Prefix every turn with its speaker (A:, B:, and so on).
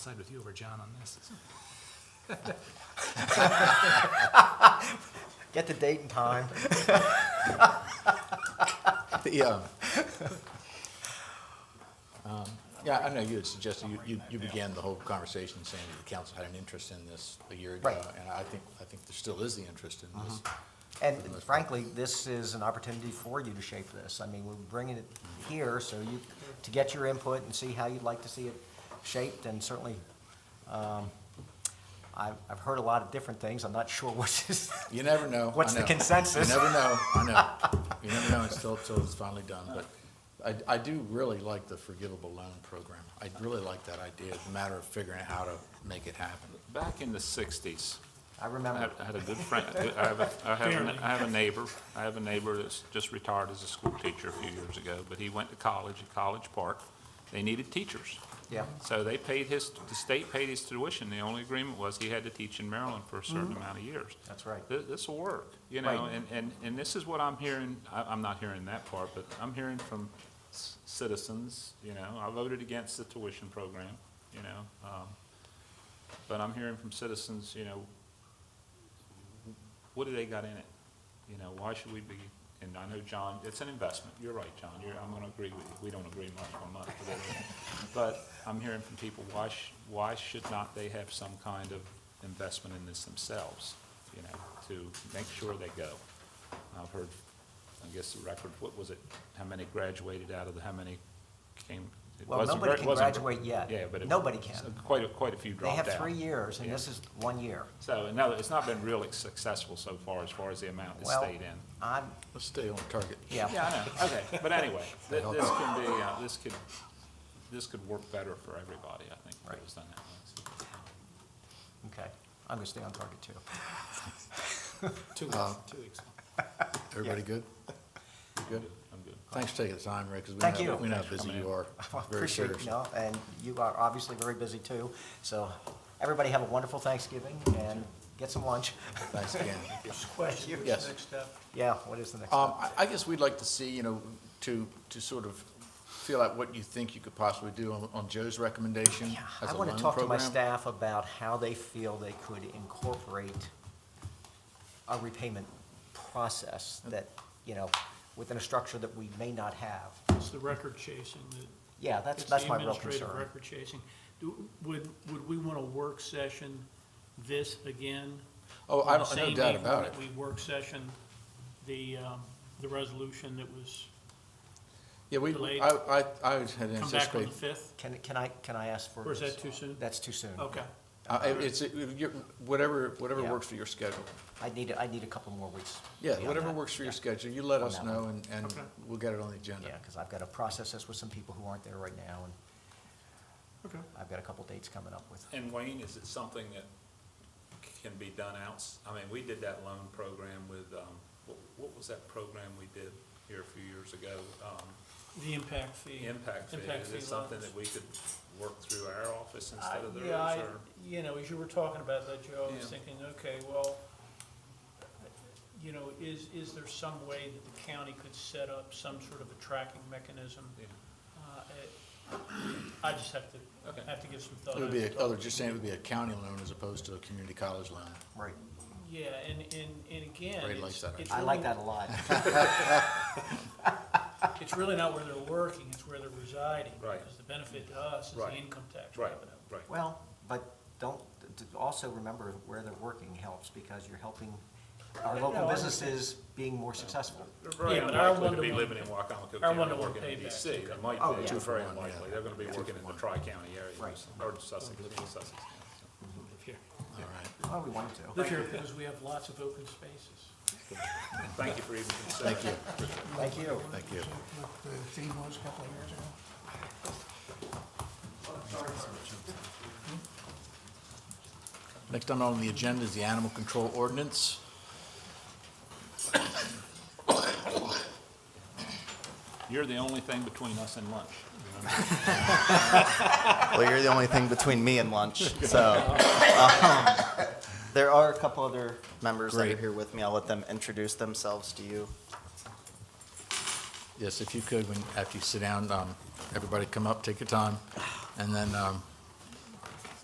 A: side with you over John on this.
B: Get the date and time.
C: The, um, um, Yeah, I know you had suggested, you- you, you began the whole conversation saying that the council had an interest in this a year ago.
B: Right. Mm-hmm.
C: And I think, I think there still is the interest in this.
B: And
C: For the most part.
B: frankly, this is an opportunity for you to shape this. I mean, we're bringing it here so you, to get your input and see how you'd like to see it shaped, and certainly, um, I've, I've heard a lot of different things. I'm not sure which is,
C: You never know. I
B: What's the
C: know.
B: consensus?
C: You never know, I know. You never know until, until it's finally done, but I, I do really like the forgivable loan program. I really like that idea, it's a matter of figuring out how to make it happen.
D: Back in the sixties,
B: I
D: I
B: remember.
D: had I had a good friend, I have, a- I have, a- I have a neighbor, I have a neighbor that's just retired as a school teacher a few years ago, but he went to college at College Park. They needed teachers.
B: Yeah.
D: So they paid his, the state paid his tuition. The only agreement was he had to teach in Maryland for a certain amount of years.
B: Mm-hmm. That's right.
D: This will work, you know,
B: Right.
D: and, and, and this is what I'm hearing, I, I'm not hearing that part, but I'm hearing from c- citizens, you know, I voted against the tuition program, you know, um, but I'm hearing from citizens, you know, what do they got in it? You know, why should we be, and I know John, it's an investment, you're right, John, you're, I'm gonna agree with you, we don't agree much on much, but, but I'm hearing from people, why sh, why should not they have some kind of investment in this themselves, you know, to make sure they go? I've heard, I guess the record, what was it, how many graduated out of the, how many came? it
B: Well,
D: wasn't
B: nobody
D: ver-
B: can
D: wasn't-
B: graduate yet.
D: Yeah, but it. uh,
B: Nobody can.
D: Quite a, quite a few
B: They
D: dropped out.
B: have three years, and
D: Yeah.
B: this is one year.
D: So, no, it's not been really successful so far, as far as the amount that's
B: Well,
D: stayed in.
B: I'm,
C: Let's stay on target.
B: yeah,
D: Yeah, I know, okay, but anyway, th- this can be, uh, this could, this could work better for everybody, I think, if it
B: Right.
D: was done that way. So,
B: okay. I'm gonna stay on target, too.
C: Two weeks, two weeks. Uh, Everybody good? Good?
D: I'm good.
C: Thanks for taking the time, Rick, because we
B: Thank
C: know,
B: you.
C: we know how
D: Thanks for
C: busy
D: coming
C: you
D: in.
C: are.
B: I
C: Very
B: appreciate, you
C: seriously.
B: know, and you are obviously very busy too. So everybody have a wonderful Thanksgiving and get some lunch.
C: Thanks again.
E: Question,
C: Yes.
E: what's the next step?
B: Yeah, what is the next
C: Um,
B: step?
C: I, I guess we'd like to see, you know, to, to sort of feel out what you think you could possibly do on, on Joe's recommendation
B: Yeah,
C: as
B: I
C: a
B: want
C: loan
B: to talk to my
C: program.
B: staff about how they feel they could incorporate a repayment process that, you know, within a structure that we may not have.
E: It's the record chasing that.
B: Yeah, that's,
E: it's
B: that's
E: the
B: my real
E: administrative
B: concern.
E: Record chasing. Do, would, would we want a work session this again?
C: Oh, I
E: on the
C: don't, no
E: same
C: doubt
E: evening
C: about it.
E: that We work session, the, um, the resolution that was
C: Yeah, we,
E: delayed.
C: I, I, I had
E: come back on
C: anticipated,
E: the fifth,
B: Can, can I, can I ask for?
E: or is that too soon?
B: That's too soon.
E: Okay,
C: uh, it- it's, it- you're- whatever, whatever
B: Yeah.
C: works for your schedule.
B: I need, I need a couple more weeks.
C: Yeah,
B: beyond
C: whatever
B: that.
C: works for your schedule, you let
B: On
C: us
B: that
C: know and, and
E: Okay.
C: we'll get it on the agenda.
B: Yeah, because I've got to process this with some people who aren't there right now and
E: okay.
B: I've got a couple dates coming up with.
D: And Wayne, is it something that can be done outs, I mean, we did that loan program with, um, what, what was that program we did here a few years ago? Um,
E: The impact fee.
D: Impact fee,
E: Impact
D: is
E: fee
D: it something
E: loans.
D: that we could work through our office
E: I-
D: instead of theirs,
E: Yeah, I,
D: or?
E: you know, as you were talking about that, Joe, I was
D: Yeah.
E: thinking, okay, well, you know, is, is there some way that the county could set up some sort of a tracking mechanism?
D: Yeah.
E: Uh, it- I just have
D: Okay.
E: to, have to give some thought.
C: It would be, a-
E: Talk-
C: oh, they're just saying it would be a county loan as opposed to a community college loan.
B: Right.
E: Yeah, and, and, and again,
C: Ray likes
E: it's,
C: that
E: it's
B: I like
E: really-
B: that a lot.
E: It's really not where they're working, it's where they're residing.
D: Right.
E: Because the benefit to us is the
D: Right.
E: income tax
D: Right,
E: revenue.
D: right.
B: Well, but don't, d- d- also remember where they're working helps because you're helping our
E: No,
B: local
E: I
B: businesses being more successful.
D: They're very
E: Yeah, but our
D: unlikely to be
E: one-to-one-
D: living in Wacomico
E: our
D: County,
E: one-to-one
D: working in
E: payback.
D: DC. That might
B: Oh,
D: be,
B: yeah.
D: It's
B: Two
C: for
D: very
C: one, yeah.
D: unlikely. They're gonna be working in the tri-county area,
B: Right.
D: or Sussex, living in Sussex. yeah,
E: Live here.
C: All right,
B: Well, we want to.
E: Live here because we have lots of open spaces.
D: so. Thank you for even considering.
C: Thank you.
B: Thank you.
C: thank you.
F: what the theme was a couple of years ago.
C: Next item on the agenda is the animal control ordinance.
D: You're the only thing between us and lunch.
G: Well, you're the only thing between me and lunch, so. um, There are a couple other members that are
C: Great.
G: here with me. I'll let them introduce themselves to you.
C: Yes, if you could, when, after you sit down, um, everybody come up, take your time, and then, um,